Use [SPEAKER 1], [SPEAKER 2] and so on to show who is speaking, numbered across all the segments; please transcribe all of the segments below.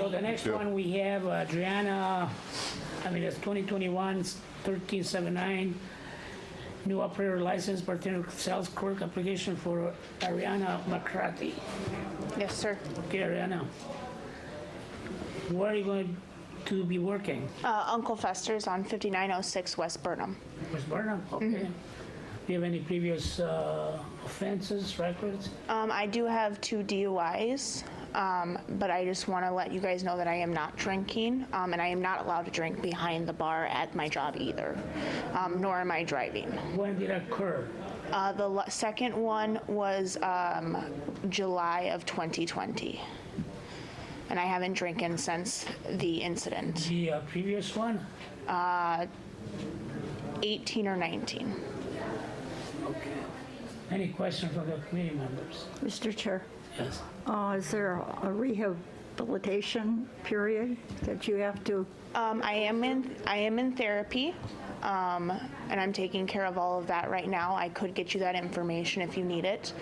[SPEAKER 1] the next
[SPEAKER 2] Yep.
[SPEAKER 1] one, we have uh, Adriana, I mean, it's 2021-1379, new operator license, bartender sales clerk application for Ariana McCarthy.
[SPEAKER 3] Yes, sir.
[SPEAKER 1] Okay, Ariana. Where are you going to be working?
[SPEAKER 3] Uh, Uncle Fester's on 5906 West Burnham.
[SPEAKER 1] West Burnham? Okay. Do you have any previous uh, offenses, records?
[SPEAKER 3] Um, I do have two DUIs, um, but I just want to let you guys know that I am not drinking, um, and I am not allowed to drink behind the bar at my job either, um, nor am I driving.
[SPEAKER 1] When did it occur?
[SPEAKER 3] Uh, the l- second one was um, July of 2020, and I haven't drinking since the incident,
[SPEAKER 1] The uh, previous one?
[SPEAKER 3] 18 or 19.
[SPEAKER 1] Any questions from the committee members?
[SPEAKER 4] Mr. Chair,
[SPEAKER 1] Yes.
[SPEAKER 4] uh, is there a rehabilitation period that you have to,
[SPEAKER 3] Um, I am in I am in therapy, um, and I'm taking care of all of that right now. I could get you that information if you need it.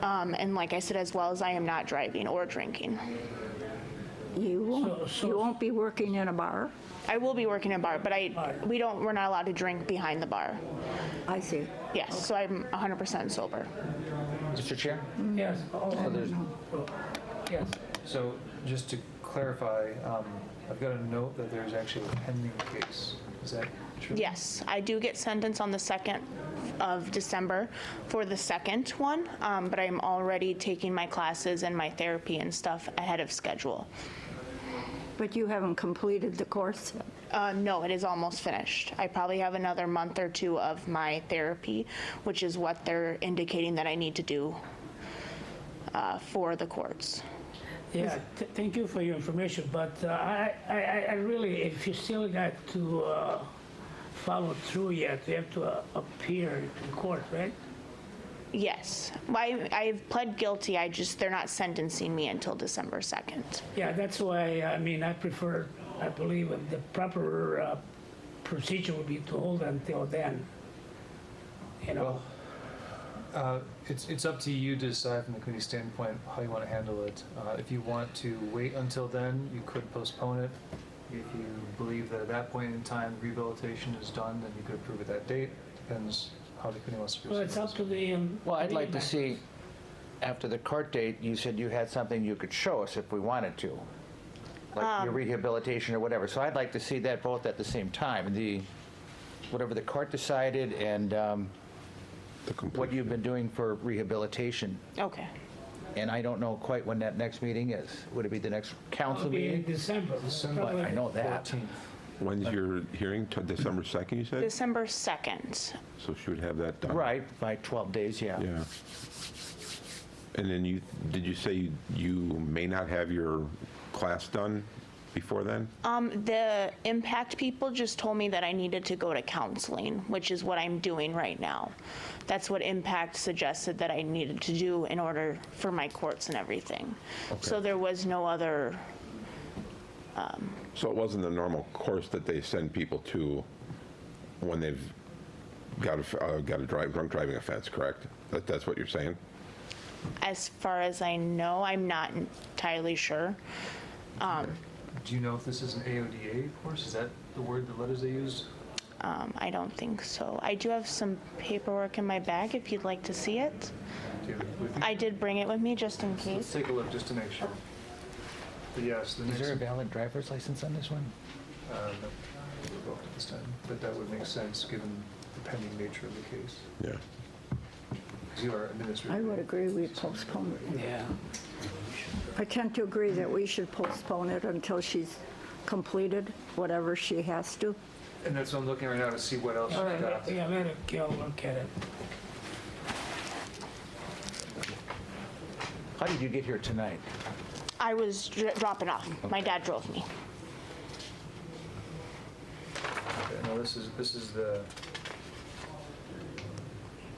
[SPEAKER 3] Um, and like I said, as well as I am not driving or drinking.
[SPEAKER 4] you won't,
[SPEAKER 1] so-
[SPEAKER 4] you won't be working in a bar?
[SPEAKER 3] I will be working in a bar, but I we don't we're not allowed to drink behind the bar.
[SPEAKER 4] I see.
[SPEAKER 3] Yes, so I'm 100% sober.
[SPEAKER 5] Mr. Chair?
[SPEAKER 1] Yes,
[SPEAKER 5] So
[SPEAKER 1] oh,
[SPEAKER 5] there's-
[SPEAKER 1] yes.
[SPEAKER 5] So just to clarify, um, I've got a note that there's actually a pending case. Is that true?
[SPEAKER 3] Yes, I do get sentenced on the 2nd of December for the second one, um, but I'm already taking my classes and my therapy and stuff ahead of schedule.
[SPEAKER 4] But you haven't completed the course?
[SPEAKER 3] Uh, no, it is almost finished. I probably have another month or two of my therapy, which is what they're indicating that I need to do uh, for the courts.
[SPEAKER 1] Yeah, th- thank you for your information, but uh, I, I, I- I really, if you still got to uh, follow through yet, you have to uh, appear in court, right?
[SPEAKER 3] Yes, I, I've pled guilty. I just they're not sentencing me until December 2nd.
[SPEAKER 1] Yeah, that's why, I mean, I prefer, I believe that the proper uh, procedure would be to hold until then. You know,
[SPEAKER 5] Well, uh, it's, it's up to you to decide from the committee standpoint how you want to handle it. Uh, If you want to wait until then, you could postpone it. If you believe that at that point in time rehabilitation is done, then you could approve at that date. Depends how the committee wants to proceed.
[SPEAKER 1] well, it's up to the. um,
[SPEAKER 6] Well, I'd like to
[SPEAKER 1] committee
[SPEAKER 6] see, after the court date, you said you had something you could show us if we wanted to, like your rehabilitation or whatever. So I'd like to see that both at the same time, the, whatever the court decided and um,
[SPEAKER 2] The
[SPEAKER 6] what
[SPEAKER 2] complete-
[SPEAKER 6] you've been doing for rehabilitation.
[SPEAKER 3] Okay.
[SPEAKER 6] And I don't know quite when that next meeting is. Would it be the next council
[SPEAKER 1] It'll be in
[SPEAKER 6] meeting?
[SPEAKER 1] December.
[SPEAKER 5] December.
[SPEAKER 1] probably.
[SPEAKER 6] I know that.
[SPEAKER 5] 14th.
[SPEAKER 2] When's your hearing? T- December 2nd, you said?
[SPEAKER 3] December 2nd.
[SPEAKER 2] So she would have that done.
[SPEAKER 6] Right, by 12 days, yeah.
[SPEAKER 2] Yeah. And then you, did you say you- you may not have your class done before then?
[SPEAKER 3] Um, the impact people just told me that I needed to go to counseling, which is what I'm doing right now. That's what impact suggested that I needed to do in order for my courts and everything. So there was no other,
[SPEAKER 2] So it wasn't the normal course that they send people to when they've got a, f- uh, got a drive, drunk driving offense, correct? That, that's what you're saying?
[SPEAKER 3] as far as I know, I'm not entirely sure. Um,
[SPEAKER 5] Do you know if this is an AODA course? Is that the word, the letters they use?
[SPEAKER 3] Um, I don't think so. I do have some paperwork in my bag if you'd like to see it.
[SPEAKER 5] Do you have it with you?
[SPEAKER 3] I did bring it with me just in
[SPEAKER 5] Let's
[SPEAKER 3] case.
[SPEAKER 5] take a look just to make sure. But yes, the
[SPEAKER 6] Is
[SPEAKER 5] next.
[SPEAKER 6] there a valid driver's license on this one?
[SPEAKER 5] uh, no, revoked at this time, But that would make sense, given the pending nature of the case.
[SPEAKER 2] Yeah.
[SPEAKER 5] 'Cause You are administrative.
[SPEAKER 4] I would agree we postpone it.
[SPEAKER 1] Yeah.
[SPEAKER 4] I tend to agree that we should postpone it until she's completed whatever she has to.
[SPEAKER 5] And that's what I'm looking right now to see what else
[SPEAKER 1] All
[SPEAKER 5] you've
[SPEAKER 1] right,
[SPEAKER 5] got.
[SPEAKER 1] yeah, let it go, look at it.
[SPEAKER 6] How did you get here tonight?
[SPEAKER 3] I was dr- dropping off. My dad drove me.
[SPEAKER 5] Okay, Now, this is, this is the,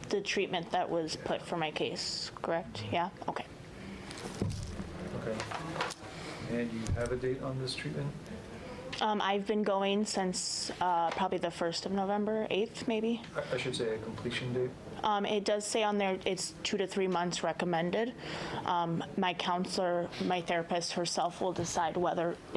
[SPEAKER 3] The treatment that was put for my case, correct? Yeah? Okay.
[SPEAKER 5] okay. And you have a date on this treatment?
[SPEAKER 3] Um, I've been going since uh, probably the 1st of November, 8th maybe.
[SPEAKER 5] I- I should say a completion date?
[SPEAKER 3] Um, It does say on there, it's two to three months recommended. Um, My counselor, my therapist herself will decide whether